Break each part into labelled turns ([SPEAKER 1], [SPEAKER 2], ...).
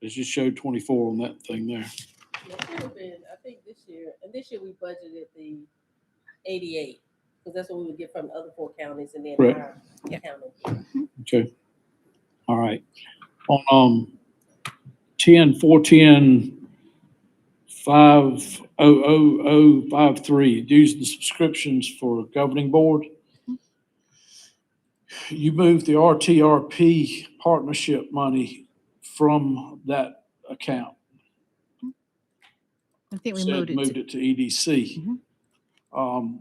[SPEAKER 1] It just showed twenty-four on that thing there.
[SPEAKER 2] It should have been, I think this year, and this year we budgeted the eighty-eight, because that's what we would get from the other four counties and then
[SPEAKER 1] Right.
[SPEAKER 2] our
[SPEAKER 3] Yeah.
[SPEAKER 2] county.
[SPEAKER 1] Okay. All right. On, um, ten, four, ten, five, oh, oh, oh, five, three, dues and subscriptions for governing board. You moved the RTRP partnership money from that account.
[SPEAKER 3] I think we
[SPEAKER 1] said
[SPEAKER 3] moved it.
[SPEAKER 1] moved
[SPEAKER 3] to-
[SPEAKER 1] it to EDC.
[SPEAKER 3] Mhm.
[SPEAKER 1] Um,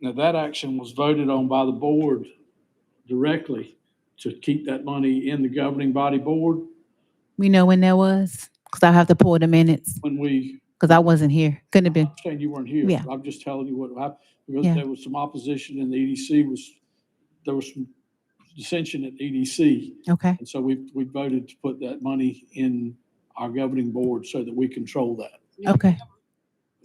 [SPEAKER 1] Now, that action was voted on by the board directly to keep that money in the governing body board
[SPEAKER 3] We know when that was, because I have to pull the minutes,
[SPEAKER 1] when we,
[SPEAKER 3] because I wasn't here. Couldn't have
[SPEAKER 1] I'm
[SPEAKER 3] been.
[SPEAKER 1] not saying you weren't here.
[SPEAKER 3] Yeah.
[SPEAKER 1] I'm just telling you what happened, because
[SPEAKER 3] Yeah.
[SPEAKER 1] there was some opposition and the EDC was, there was some dissension at EDC.
[SPEAKER 3] Okay,
[SPEAKER 1] And so we, we voted to put that money in our governing board so that we control that.
[SPEAKER 3] okay.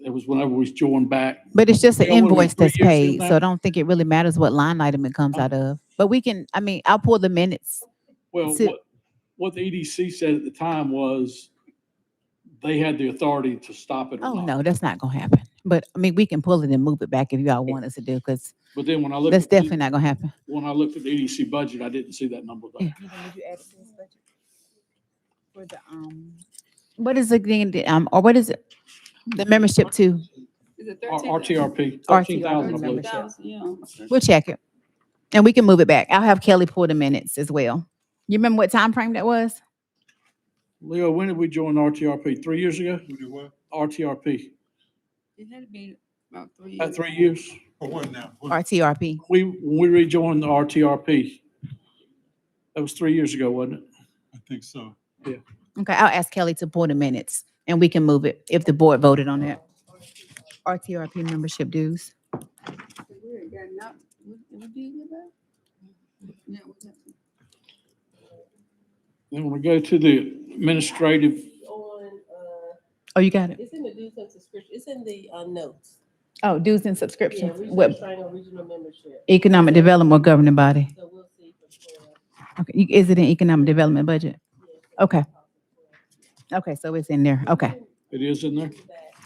[SPEAKER 1] It was whenever we joined back.
[SPEAKER 3] But it's just an
[SPEAKER 1] Yeah, what are we,
[SPEAKER 3] invoice
[SPEAKER 1] three
[SPEAKER 3] that's
[SPEAKER 1] years in
[SPEAKER 3] paid, so
[SPEAKER 1] now?
[SPEAKER 3] I don't think it really matters what line item it comes out of. But we can, I mean, I'll pull the minutes.
[SPEAKER 1] Well,
[SPEAKER 3] So-
[SPEAKER 1] what, what the EDC said at the time was they had the authority to stop it
[SPEAKER 3] Oh,
[SPEAKER 1] or
[SPEAKER 3] no,
[SPEAKER 1] not.
[SPEAKER 3] that's not gonna happen. But, I mean, we can pull it and move it back if y'all want us to do, because
[SPEAKER 1] But then when I looked,
[SPEAKER 3] that's
[SPEAKER 1] at the-
[SPEAKER 3] definitely not gonna happen.
[SPEAKER 1] when I looked at the EDC budget, I didn't see that number there.
[SPEAKER 4] For the, um,
[SPEAKER 3] What is it again, the, um, or what is it? The membership to,
[SPEAKER 4] is it
[SPEAKER 1] R-
[SPEAKER 4] thirteen?
[SPEAKER 1] RTRP,
[SPEAKER 3] RTRP,
[SPEAKER 1] thirteen thousand, I believe.
[SPEAKER 3] remember.
[SPEAKER 4] yeah.
[SPEAKER 3] we'll check it. And we can move it back. I'll have Kelly pull the minutes as well. You remember what time frame that was?
[SPEAKER 1] Leo, when did we join RTRP? Three years ago? RTRP,
[SPEAKER 4] It had been about three.
[SPEAKER 1] about three years.
[SPEAKER 5] For Oh, one now. one-
[SPEAKER 3] RTRP.
[SPEAKER 1] We, we rejoined the RTRP. That was three years ago, wasn't it?
[SPEAKER 5] I think so.
[SPEAKER 3] Okay, I'll ask Kelly to pull the minutes and we can move it if the board voted on it. RTRP membership dues.
[SPEAKER 4] We had gotten out, we, we did get back? Yeah, we got-
[SPEAKER 1] Then when we go to the administrative,
[SPEAKER 2] On, uh,
[SPEAKER 3] Oh, you got it.
[SPEAKER 2] it's in the dues and subscription, it's in the, uh, notes.
[SPEAKER 3] Oh, dues and
[SPEAKER 2] Yeah,
[SPEAKER 3] subscriptions.
[SPEAKER 2] regional
[SPEAKER 3] What,
[SPEAKER 2] training, regional membership,
[SPEAKER 3] economic development or governing body?
[SPEAKER 2] so we'll see. from there.
[SPEAKER 3] Okay, you- is it in economic development budget?
[SPEAKER 2] Yeah.
[SPEAKER 3] Okay. Okay, so it's in there. Okay.
[SPEAKER 1] it is in there.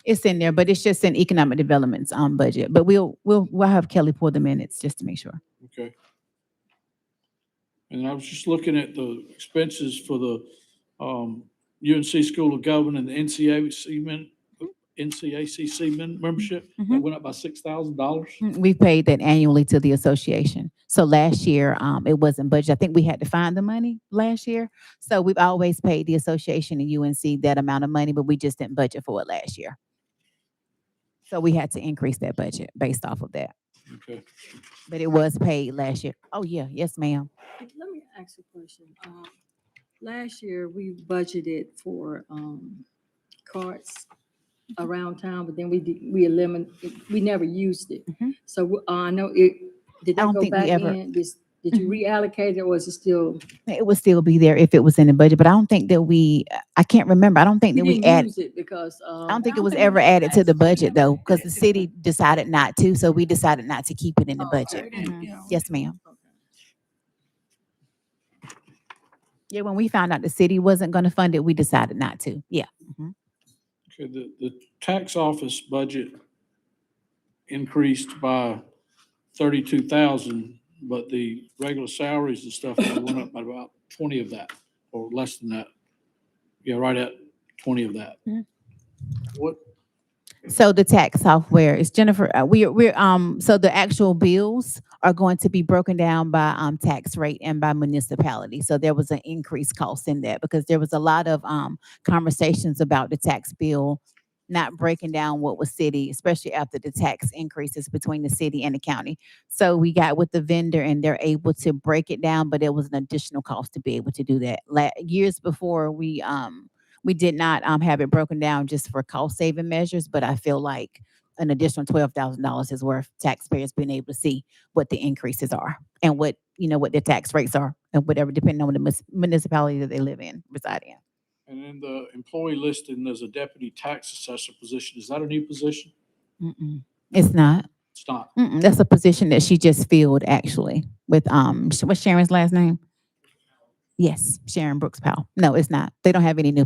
[SPEAKER 3] It's in there, but it's just in economic development's, um, budget. But we'll, we'll, we'll have Kelly pull the minutes just to make sure.
[SPEAKER 1] Okay. And I was just looking at the expenses for the um, UNC School of Government and the NCAC men, NCACC men membership. That
[SPEAKER 3] Mhm.
[SPEAKER 1] went up by six thousand dollars.
[SPEAKER 3] Mm, We paid that annually to the association. So last year, um, it wasn't budget. I think we had to find the money last year. So we've always paid the association and UNC that amount of money, but we just didn't budget for it last year. So we had to increase that budget based off of that,
[SPEAKER 1] Okay.
[SPEAKER 3] but it was paid last year. Oh, yeah, yes, ma'am.
[SPEAKER 6] Let me ask a question. Um, Last year, we budgeted for um, carts
[SPEAKER 3] Mm-hmm.
[SPEAKER 6] around town, but then we did, we eliminated, we never used it.
[SPEAKER 3] Mhm.
[SPEAKER 6] So uh, I know it,
[SPEAKER 3] I
[SPEAKER 6] did that
[SPEAKER 3] don't
[SPEAKER 6] go
[SPEAKER 3] think we
[SPEAKER 6] back
[SPEAKER 3] ever- Mm-hmm.
[SPEAKER 6] in? Did did you reallocate it or is it still?
[SPEAKER 3] It would still be there if it was in the budget, but I don't think that we, I can't remember. I don't think
[SPEAKER 6] We
[SPEAKER 3] that we
[SPEAKER 6] didn't
[SPEAKER 3] added.
[SPEAKER 6] use it because. um,
[SPEAKER 3] I don't think it was ever added to the budget though, because the city decided not to, so we decided not to keep it in the
[SPEAKER 6] Oh,
[SPEAKER 3] budget.
[SPEAKER 6] okay.
[SPEAKER 3] Mhm.
[SPEAKER 4] Yeah.
[SPEAKER 3] Yes, ma'am.
[SPEAKER 6] Okay.
[SPEAKER 3] Yeah, when we found out the city wasn't gonna fund it, we decided not to. Yeah.
[SPEAKER 1] Okay, the, the tax office budget increased by thirty-two thousand, but the regular salaries and stuff went up by about twenty of that, or less than that. Yeah, right at twenty of that.
[SPEAKER 3] Mhm.
[SPEAKER 1] What,
[SPEAKER 3] So the tax software is Jennifer, uh, we're, we're, um, so the actual bills are going to be broken down by, um, tax rate and by municipality. So there was an increased cost in that because there was a lot of, um, conversations about the tax bill not breaking down what was city, especially after the tax increases between the city and the county. So we got with the vendor and they're able to break it down, but it was an additional cost to be able to do that. La- years before, we, um, we did not um, have it broken down just for cost saving measures, but I feel like an additional twelve thousand dollars is worth taxpayers being able to see what the increases are and what, you know, what their tax rates are and whatever, depending on the mus- municipality that they live in, reside in.
[SPEAKER 1] And in the employee listing, there's a deputy tax assessor position. Is that a new position?
[SPEAKER 3] Mm-mm. It's not.
[SPEAKER 1] It's not.
[SPEAKER 3] Mm-mm. That's a position that she just filled actually with, um, Sh- what's Sharon's last name? Yes, Sharon Brooks Powell. No, it's not. They don't have any new